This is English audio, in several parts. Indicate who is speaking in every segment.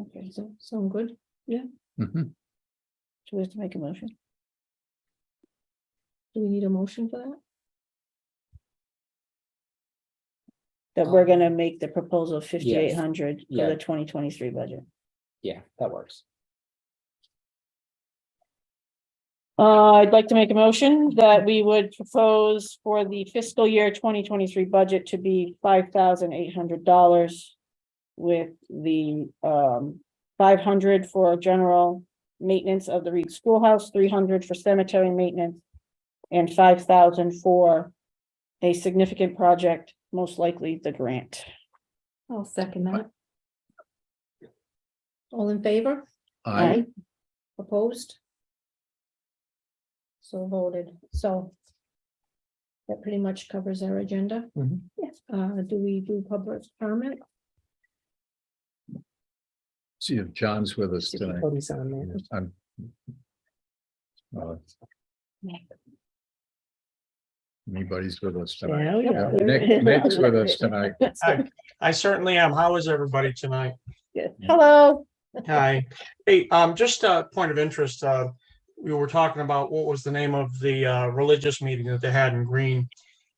Speaker 1: Okay, so, so I'm good.
Speaker 2: Mhm.
Speaker 1: Do we have to make a motion? Do we need a motion for that? That we're gonna make the proposal fifty-eight hundred for
Speaker 2: Yeah.
Speaker 1: the twenty twenty-three budget.
Speaker 2: Yeah, that works.
Speaker 3: Uh, I'd like to make a motion that we would propose for the fiscal year twenty twenty-three budget to be five thousand eight hundred dollars. With the um five hundred for general maintenance of the Reed Schoolhouse, three hundred for cemetery maintenance. And five thousand for a significant project, most likely the grant.
Speaker 4: I'll second that.
Speaker 1: All in favor?
Speaker 2: I,
Speaker 1: Opposed? So voted, so. That pretty much covers our agenda.
Speaker 2: Mhm.
Speaker 1: Yes. Uh, do we do public comment?
Speaker 2: see if John's with us tonight.
Speaker 4: Cody's on there.
Speaker 2: I'm. Uh, Anybody's with us tonight.
Speaker 4: Yeah, oh,
Speaker 2: Yeah,
Speaker 4: yeah.
Speaker 2: Nick, Nick's with us tonight.
Speaker 5: I certainly am. How is everybody tonight?
Speaker 3: Hello,
Speaker 5: Hi. Hey, um, just a point of interest, uh, we were talking about what was the name of the, uh, religious meeting that they had in Green.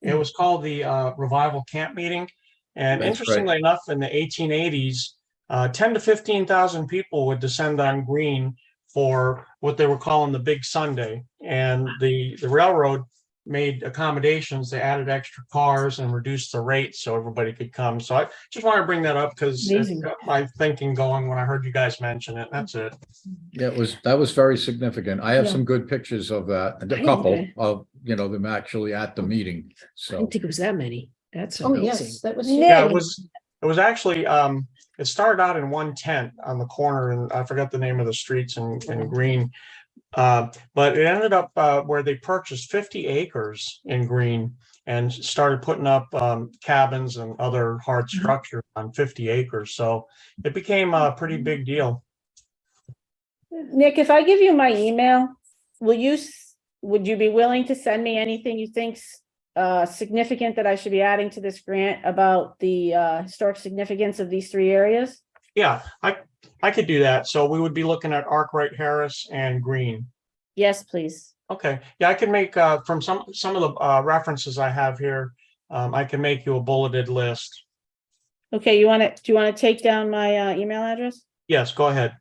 Speaker 5: It was called the, uh, Revival Camp Meeting. And
Speaker 2: Mm. That's right.
Speaker 5: interestingly enough, in the eighteen eighties, uh, ten to fifteen thousand people would descend on Green for what they were calling the Big Sunday. And the, the railroad made accommodations. They added extra cars and reduced the rate so everybody could come. So I just want to bring that up because
Speaker 4: Amazing.
Speaker 5: it got my thinking going when I heard you guys mention it. That's it.
Speaker 2: Yeah, it was, that was very significant. I have
Speaker 1: Yeah.
Speaker 2: some good pictures of that, and a couple
Speaker 4: Okay.
Speaker 2: of, you know, them actually at the meeting.
Speaker 4: Oh. I
Speaker 2: So
Speaker 4: didn't think it was that many. That's
Speaker 1: Oh,
Speaker 4: amazing.
Speaker 1: yes, that was.
Speaker 5: Yeah, it was, it was actually, um, it started out in one tent on the corner and I forgot the name of the streets in, in Green. Uh, but it ended up, uh, where they purchased fifty acres in Green and started putting up, um, cabins and other hard structures on fifty acres. So it became a pretty big deal.
Speaker 3: Nick, if I give you my email, will you, s- would you be willing to send me anything you think's uh, significant that I should be adding to this grant about the uh, historic significance of these three areas?
Speaker 5: Yeah, I, I could do that. So we would be looking at Arkwright, Harris and Green.
Speaker 3: Yes, please.
Speaker 5: Okay, yeah, I can make, uh, from some, some of the, uh, references I have here, um, I can make you a bulleted list.
Speaker 3: Okay, you want to, do you want to take down my uh, email address?
Speaker 5: Yes, go ahead.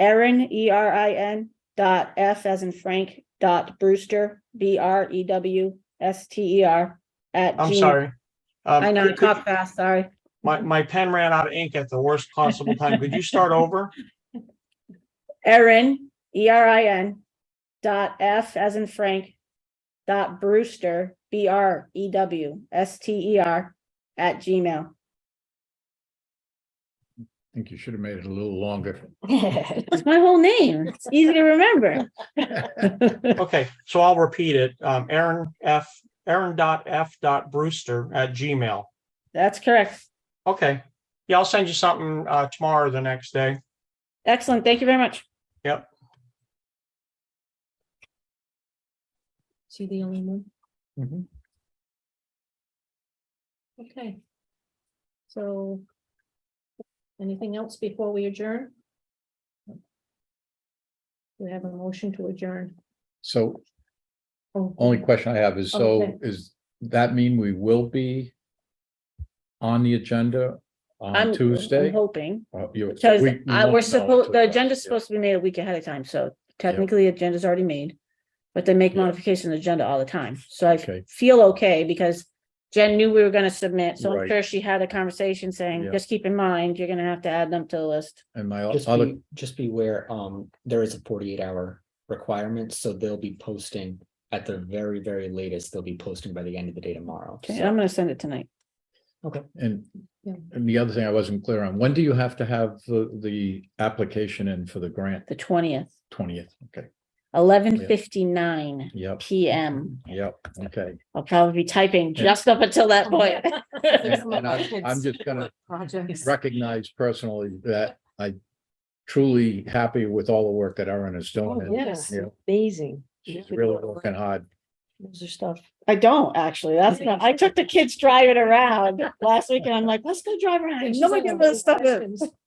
Speaker 3: Erin, E R I N dot F as in Frank dot Brewster, B R E W S T E R at.
Speaker 5: I'm
Speaker 3: G-
Speaker 5: sorry. Um,
Speaker 3: I know,
Speaker 5: could- could-
Speaker 3: talk fast, sorry.
Speaker 5: My, my pen ran out of ink at the worst possible time. Could you start over?
Speaker 3: Erin, E R I N dot F as in Frank dot Brewster, B R E W S T E R at Gmail.
Speaker 2: I think you should have made it a little longer.
Speaker 3: That's my whole name. It's easy to remember.
Speaker 5: Okay, so I'll repeat it. Um, Aaron F, Aaron dot F dot Brewster at Gmail.
Speaker 3: That's correct.
Speaker 5: Okay, yeah, I'll send you something, uh, tomorrow or the next day.
Speaker 3: Excellent. Thank you very much.
Speaker 1: See the only one?
Speaker 4: Mm-hmm.
Speaker 2: Mhm.
Speaker 1: Okay. So. Anything else before we adjourn? We have a motion to adjourn.
Speaker 2: So
Speaker 1: Oh,
Speaker 2: only question I have is, so
Speaker 1: Okay.
Speaker 2: is that mean we will be on the agenda
Speaker 3: I'm-
Speaker 2: on
Speaker 3: I'm
Speaker 2: Tuesday?
Speaker 3: Hoping,
Speaker 2: Uh, you-
Speaker 3: because
Speaker 2: we- we
Speaker 3: uh,
Speaker 2: won't know
Speaker 3: we're supposed,
Speaker 2: until
Speaker 3: the
Speaker 2: then.
Speaker 3: agenda's supposed to be made a week ahead of time, so technically the agenda's already made. But they make
Speaker 2: Yeah.
Speaker 3: modifications to the agenda all the time, so I
Speaker 2: Okay.
Speaker 3: feel okay because Jen knew we were gonna submit, so I'm
Speaker 2: Right.
Speaker 3: sure she had a conversation saying,
Speaker 2: Yeah.
Speaker 3: just keep in mind, you're gonna have to add them to the list.
Speaker 2: And my
Speaker 6: Just
Speaker 2: other,
Speaker 6: be, just beware, um, there is a forty-eight hour requirement, so they'll be posting at the very, very latest, they'll be posting by the end of the day tomorrow.
Speaker 3: Okay,
Speaker 6: so-
Speaker 3: I'm gonna send it tonight.
Speaker 2: and,
Speaker 1: Yeah.
Speaker 2: and the other thing I wasn't clear on, when do you have to have the, the application in for the grant?
Speaker 3: The twentieth,
Speaker 2: Twentieth, okay,
Speaker 3: eleven fifty-nine
Speaker 2: yep,
Speaker 3: PM.
Speaker 2: yep, okay.
Speaker 3: I'll probably be typing just up until that
Speaker 4: Oh,
Speaker 3: point.
Speaker 2: And and I- I'm just gonna recognize personally that I truly happy with all the work that Erin is
Speaker 3: Oh,
Speaker 2: doing. and,
Speaker 4: Yes,
Speaker 2: you know,
Speaker 4: amazing.
Speaker 2: She's really working hard.
Speaker 4: Those are stuff.
Speaker 3: I don't actually. That's not, I took the kids driving around last week and I'm like, let's go drive around.
Speaker 1: she's
Speaker 3: Nobody
Speaker 1: like,
Speaker 3: knew where the
Speaker 1: "Oh,
Speaker 3: stuff is.
Speaker 1: questions."